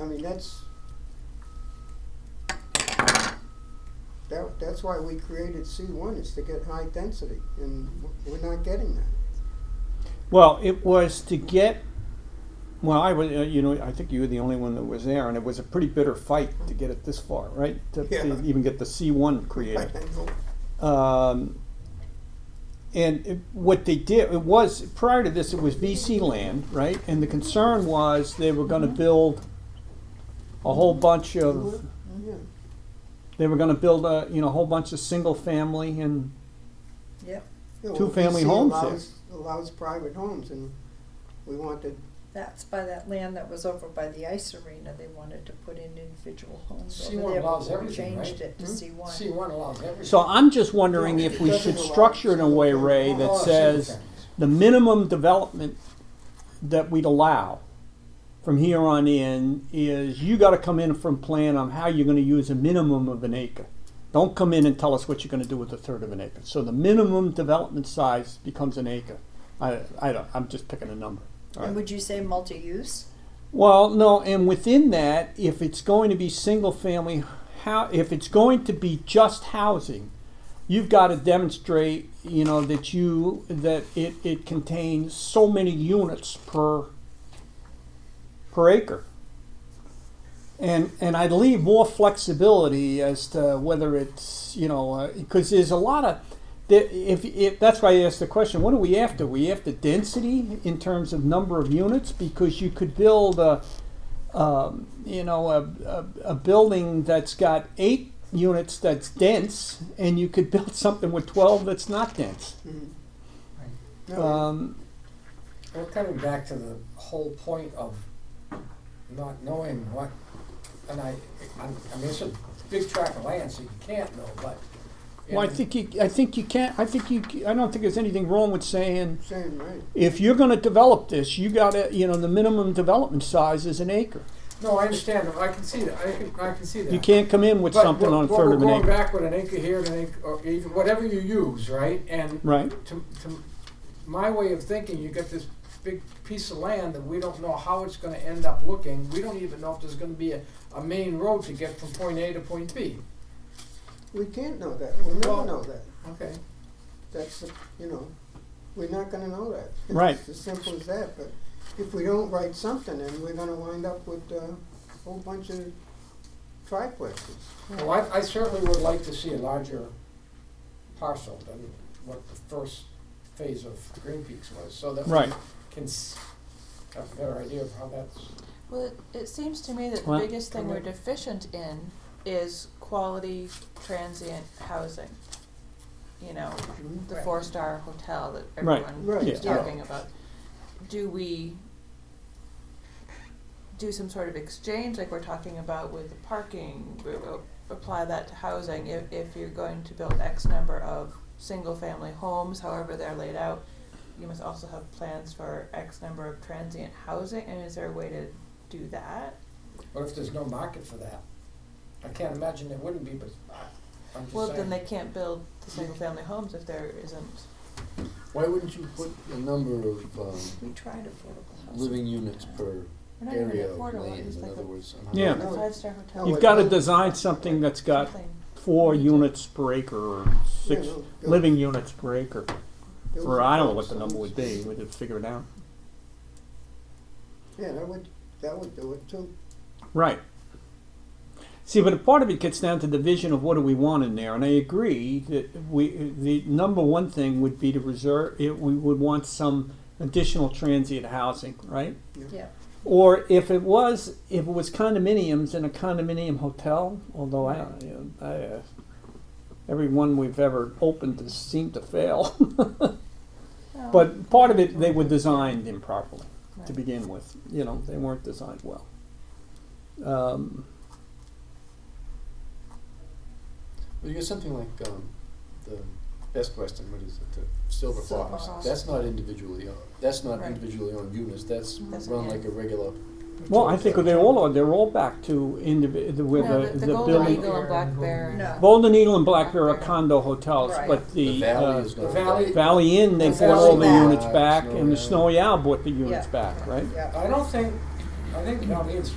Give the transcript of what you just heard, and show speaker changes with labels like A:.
A: I mean, that's, that, that's why we created C one, is to get high density, and w- we're not getting that.
B: Well, it was to get, well, I was, uh, you know, I think you were the only one that was there, and it was a pretty bitter fight to get it this far, right? To, to
A: Yeah.
B: even get the C1 created.
A: I know.
B: Um, and it, what they did, it was, prior to this, it was VC land, right? And the concern was they were going to build a whole bunch of,
A: Yeah,
B: they were going to build a, you know, a whole bunch of single family and
C: Yep,
A: Yeah, well,
B: Two-family
A: VC
B: homes there.
A: Allows, allows private homes, and we wanted,
C: that's by that land that was over by the ice arena, they wanted to put in individual homes
D: C1
C: over there.
D: allows
C: but we
D: everything, right?
C: Changed it to
A: Hmm?
C: C one.
D: C one allows everything.
B: So I'm just wondering if we should structure in a way, Ray, that says the minimum development that we'd allow from here on in is you gotta come in from plan on how you're gonna use a minimum of an acre. Don't come in and tell us what you're gonna do with a third of an acre. So the minimum development size becomes an acre. I, I don't, I'm just picking a number.
C: And would you say multi-use?
B: Well, no, and within that, if it's going to be single family, how if it's going to be just housing, you've got to demonstrate, you know, that you that it, it contains so many units per per acre. And and I'd leave more flexibility as to whether it's you know because there's a lot of there- if, if that's why I asked the question, what are we after? We after density in terms of number of units because you could build a um, you know a, a, a building that's got eight units that's dense and you could build something with 12 that's not dense
A: mm, no,
B: um,
D: We're coming back to the whole point of not knowing what, and I, I'm- I mean, it's a big tract of land, so you can't know, but.
B: well i
D: in-
B: think you i think you can't i think you i don't think there's anything wrong with saying
A: same, right,
B: if you're going to develop this you got to you know the minimum development size is an acre
D: No, I understand, I can see that, I can, I can see that.
B: you can't come in with
D: But
B: something
D: what-
B: on a
D: what
B: third of an
D: we're
B: acre
D: going back with an acre here, and an acre, or even, whatever you use, right, and
B: right
D: to, to my way of thinking, you got this big piece of land that we don't know how it's gonna end up looking. We don't even know if there's gonna be a, a main road to get from point A to point B.
A: we can't know that, we'll
D: Well-
A: never know that,
D: Okay.
A: that's, the- you know, we're not gonna know that. It's
B: Right.
A: As simple as that, but if we don't write something, then we're gonna wind up with, uh, a whole bunch of triplexes.
D: Well, I, I certainly would like to see a larger parcel than what the first phase of Green Peaks was, so that
B: Right.
D: we can s- have a better idea of how that's.
E: Well, it, it seems to me that the
B: Well-
E: biggest thing we're deficient in is quality transient housing. You know,
A: Mhm.
E: the
C: Right.
E: four star hotel that
B: Right.
E: everyone
A: Right,
E: keeps
A: yeah.
E: talking about. Do we do some sort of exchange like we're talking about with the parking? We will apply that to housing if, if you're going to build X number of single family homes, however they're laid out. You must also have plans for X number of transient housing. And is there a way to do that?
D: What if there's no market for that? I can't imagine there wouldn't be, but I, I'm just saying.
E: Well, then they can't build the single family homes if there isn't.
F: Why wouldn't you put a number of um,
C: We tried affordable housing.
F: living units per
E: We're not even
F: area of
E: affordable,
F: land,
E: it's
F: in
E: like
F: other
E: a
F: words? I'm
B: Yeah.
F: not-
E: a
A: No,
E: five star
A: No,
D: Oh,
E: hotel.
B: you've got to design something that's got
E: Something.
B: four units per acre or six
A: Yeah, no, build-
B: living units per acre.
A: build
B: For
A: some
B: I don't know what the
A: homes.
B: number would be. We'd have to figure it out.
A: Yeah, that would, that would do it too.
B: Right. See, but a part of it gets down to the vision of what do we want in there, and I agree that we the number one thing would be to reserve. It, we would want some additional transient housing, right?
C: Yeah,
B: Or if it was if it was condominiums in a condominium hotel, although I, don't- you know, I uh, every one we've ever opened has seemed to fail.
C: Oh.
E: No.
B: But part of it, they were designed improperly to
E: Right.
B: begin with. You know, they weren't designed well. Um,
F: Well, you got something like um, the Best Western, what is it, the Silver
E: Silver
F: Fox?
E: Fox.
F: That's not individually owned, that's not
E: Right.
F: individually owned units, that's
E: That's-
F: run
E: yeah.
F: like a regular.
B: well, I think they all are. They're all back to indivi- the, where
E: No,
B: the,
E: the, the,
B: the
E: Golden
B: building.
E: Eagle and Black Bear.
C: no.
B: Golden Eagle and Black Bear are
E: Right.
B: condo hotels,
C: Right.
B: but the,
F: The
B: uh,
F: valley is going
D: the valley-
F: back.
B: Valley Inn, they
D: The
B: bought all the
C: Valley
B: units
F: Inn.
B: back,
F: Snowy
B: and the
F: Owl.
B: Snowy Owl bought the units
C: Yeah.
B: back, right?
C: Yeah.
D: I don't think, I think, I mean, it's